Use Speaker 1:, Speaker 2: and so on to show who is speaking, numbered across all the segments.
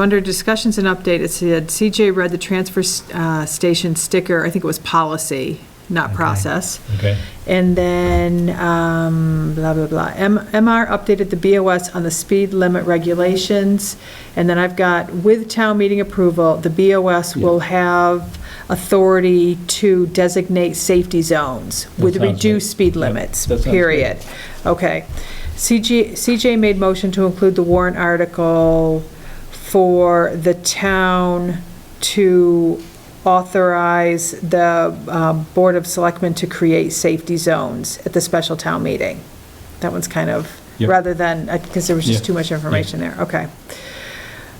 Speaker 1: Under discussions and update, it said CJ read the transfer uh, station sticker, I think it was policy, not
Speaker 2: Okay.
Speaker 1: process.
Speaker 2: Okay.
Speaker 1: And then, um, blah, blah, blah. M- MR updated the BOS on the speed limit regulations. And then I've got, with town meeting approval, the BOS will have authority to designate safety zones with
Speaker 2: sounds right.
Speaker 1: reduced speed
Speaker 2: Yep,
Speaker 1: limits,
Speaker 2: that sounds good.
Speaker 1: period. Okay. CJ, CJ made motion to include the warrant article for the town to authorize the um, Board of Selectmen to create safety zones at the special town meeting. That one's kind of,
Speaker 2: Yep.
Speaker 1: rather than, because there was just
Speaker 2: Yeah.
Speaker 1: too much information there. Okay.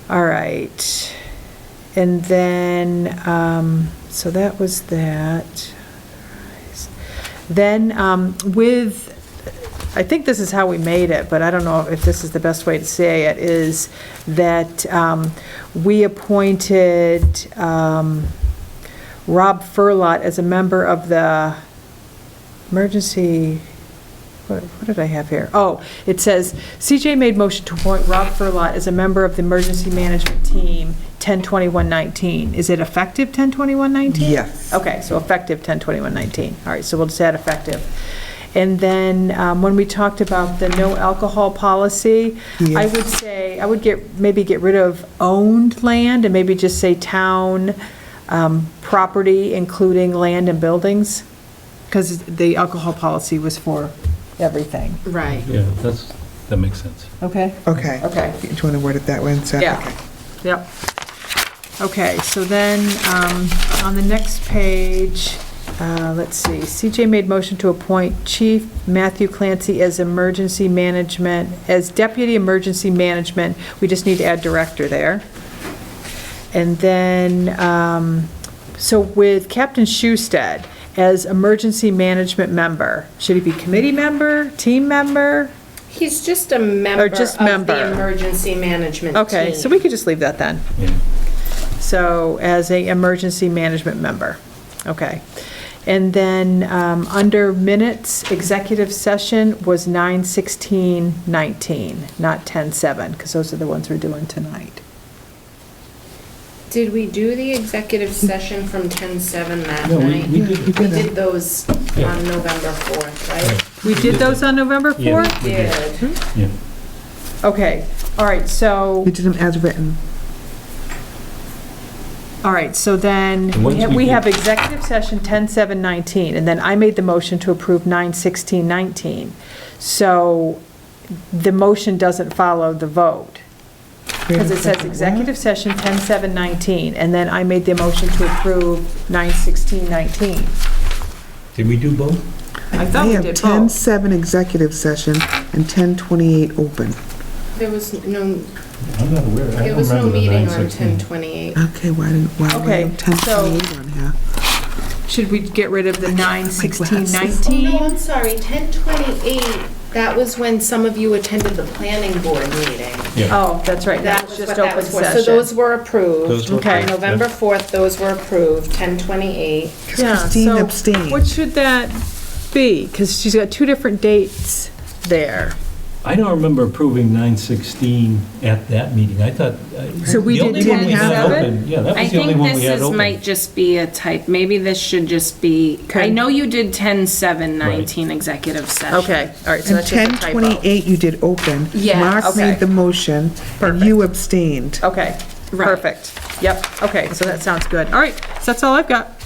Speaker 1: All right. And then, um, so that was that. Then um, with, I think this is how we made it, but I don't know if this is the best way to say it, is that um, we appointed um, Rob Furlot as a member of the emergency, what what did I have here? Oh, it says, CJ made motion to appoint Rob Furlot as a member of the emergency management team, 10/21/19. Is it effective 10/21/19?
Speaker 3: Yes.
Speaker 1: Okay, so effective 10/21/19. All right, so we'll just add effective. And then um, when we talked about the no alcohol policy, I
Speaker 3: Yes.
Speaker 1: would say, I would get, maybe get rid of owned land and maybe just say town um, property, including land and buildings, because the alcohol policy was for everything.
Speaker 4: Right.
Speaker 2: Yeah, that's, that makes sense.
Speaker 1: Okay.
Speaker 3: Okay.
Speaker 1: Okay.
Speaker 3: Do you want to word it that way instead?
Speaker 1: Yeah, yep. Okay, so then, um, on the next page, uh, let's see, CJ made motion to appoint Chief Matthew Clancy as emergency management, as deputy emergency management, we just need to add director there. And then, um, so with Captain Schusted as emergency management member, should he be committee member, team member?
Speaker 4: He's just a member
Speaker 1: Or just
Speaker 4: of
Speaker 1: member.
Speaker 4: the emergency management team.
Speaker 1: Okay, so we could just leave that then.
Speaker 2: Yeah.
Speaker 1: So as a emergency management member, okay. And then um, under minutes, executive session was 9:16:19, not 10:07, because those are the ones we're doing tonight.
Speaker 4: Did we do the executive session from 10:07 that
Speaker 2: No, we-
Speaker 4: night?
Speaker 2: we did-
Speaker 4: We did those
Speaker 2: Yeah.
Speaker 4: on November 4th, right?
Speaker 1: We did those on November
Speaker 2: Yeah.
Speaker 1: 4th?
Speaker 2: We did.
Speaker 1: Hmm?
Speaker 4: Did.
Speaker 2: Yeah.
Speaker 1: Okay, all right, so,
Speaker 3: We did them as written.
Speaker 1: all right, so then,
Speaker 2: And once we
Speaker 1: we
Speaker 2: get-
Speaker 1: have executive session 10:07:19, and then I made the motion to approve 9:16:19. So the motion doesn't follow the vote. Because it says executive session 10719, and then I made the motion to approve 91619.
Speaker 2: Did we do both?
Speaker 1: I thought we
Speaker 3: We have
Speaker 1: did both.
Speaker 3: 10:07 executive session and 10:28 open.
Speaker 4: There was no,
Speaker 2: I'm not aware. I
Speaker 4: there
Speaker 2: don't
Speaker 4: was no
Speaker 2: remember the
Speaker 4: meeting on
Speaker 2: 9:16.
Speaker 4: 10:28.
Speaker 3: Okay, why didn't, why do we
Speaker 1: Okay,
Speaker 3: have 10:28 on here?
Speaker 1: Should we get rid of the
Speaker 3: glasses.
Speaker 4: Oh, no,
Speaker 1: 91619?
Speaker 4: I'm sorry, 10:28, that was when some of you attended the planning board meeting.
Speaker 2: Yeah.
Speaker 1: Oh, that's right,
Speaker 4: That
Speaker 1: that's
Speaker 4: was
Speaker 1: just
Speaker 4: what that
Speaker 1: open
Speaker 4: was for. So those
Speaker 1: session.
Speaker 4: were approved.
Speaker 2: Those were
Speaker 1: Okay.
Speaker 2: approved, yeah.
Speaker 4: November 4th, those were approved, 10:28.
Speaker 1: Yeah,
Speaker 3: Christine
Speaker 1: so
Speaker 3: abstained.
Speaker 1: What should that be? Because she's got two different dates there.
Speaker 2: I don't remember approving 916 at that meeting. I thought. I-
Speaker 1: So we
Speaker 2: the only
Speaker 1: did
Speaker 2: one we had
Speaker 1: 10:07?
Speaker 2: open- Yeah, that
Speaker 5: I
Speaker 2: was the only
Speaker 5: think
Speaker 2: one we
Speaker 5: this
Speaker 2: had
Speaker 5: is,
Speaker 2: open.
Speaker 5: might just be a type, maybe this should just be,
Speaker 1: Okay.
Speaker 5: I know you did 10, 7, 19 executive session.
Speaker 1: Okay, all right, so
Speaker 3: And
Speaker 1: that's just a typo.
Speaker 3: 10:28 you did open.
Speaker 5: Yeah,
Speaker 3: Mark
Speaker 1: okay.
Speaker 3: made the motion, and you abstained.
Speaker 1: Okay,
Speaker 5: Right.
Speaker 1: perfect. Yep, okay, so that sounds good. All right, so that's all I've got.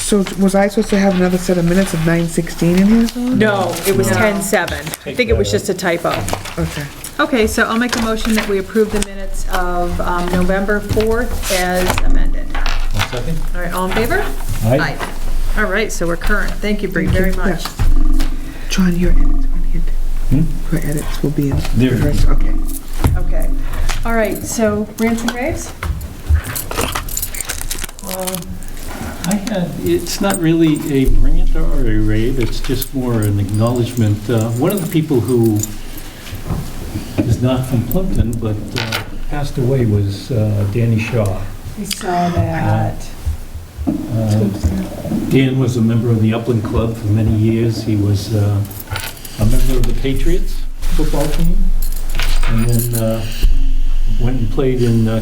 Speaker 3: So was I supposed to have another set of minutes of 9:16 in here?
Speaker 1: No, it was
Speaker 5: No.
Speaker 1: 10:07. I
Speaker 2: Take
Speaker 1: think it was
Speaker 2: that out.
Speaker 1: just a typo.
Speaker 3: Okay.
Speaker 1: Okay, so I'll make a motion that we approve the minutes of um, November 4th as amended.
Speaker 2: One second.
Speaker 1: All right, all in favor?
Speaker 2: Aye.
Speaker 1: All right, so we're current. Thank you, Bree, very much.
Speaker 3: John, your edits were in.
Speaker 2: Hmm?
Speaker 3: Your edits will be in.
Speaker 2: There.
Speaker 3: first, Okay.
Speaker 1: Okay. All right, so rants and raves?
Speaker 2: I had, it's not really a rant or a rave, it's just more an acknowledgement. Uh, One of the people who is not from Plimpton, but uh, passed away was uh, Danny Shaw.
Speaker 1: We saw that.
Speaker 2: Uh, Dan was a member of the Upland Club for many years. He was uh, a member of the Patriots football team, and then uh, went and played in uh,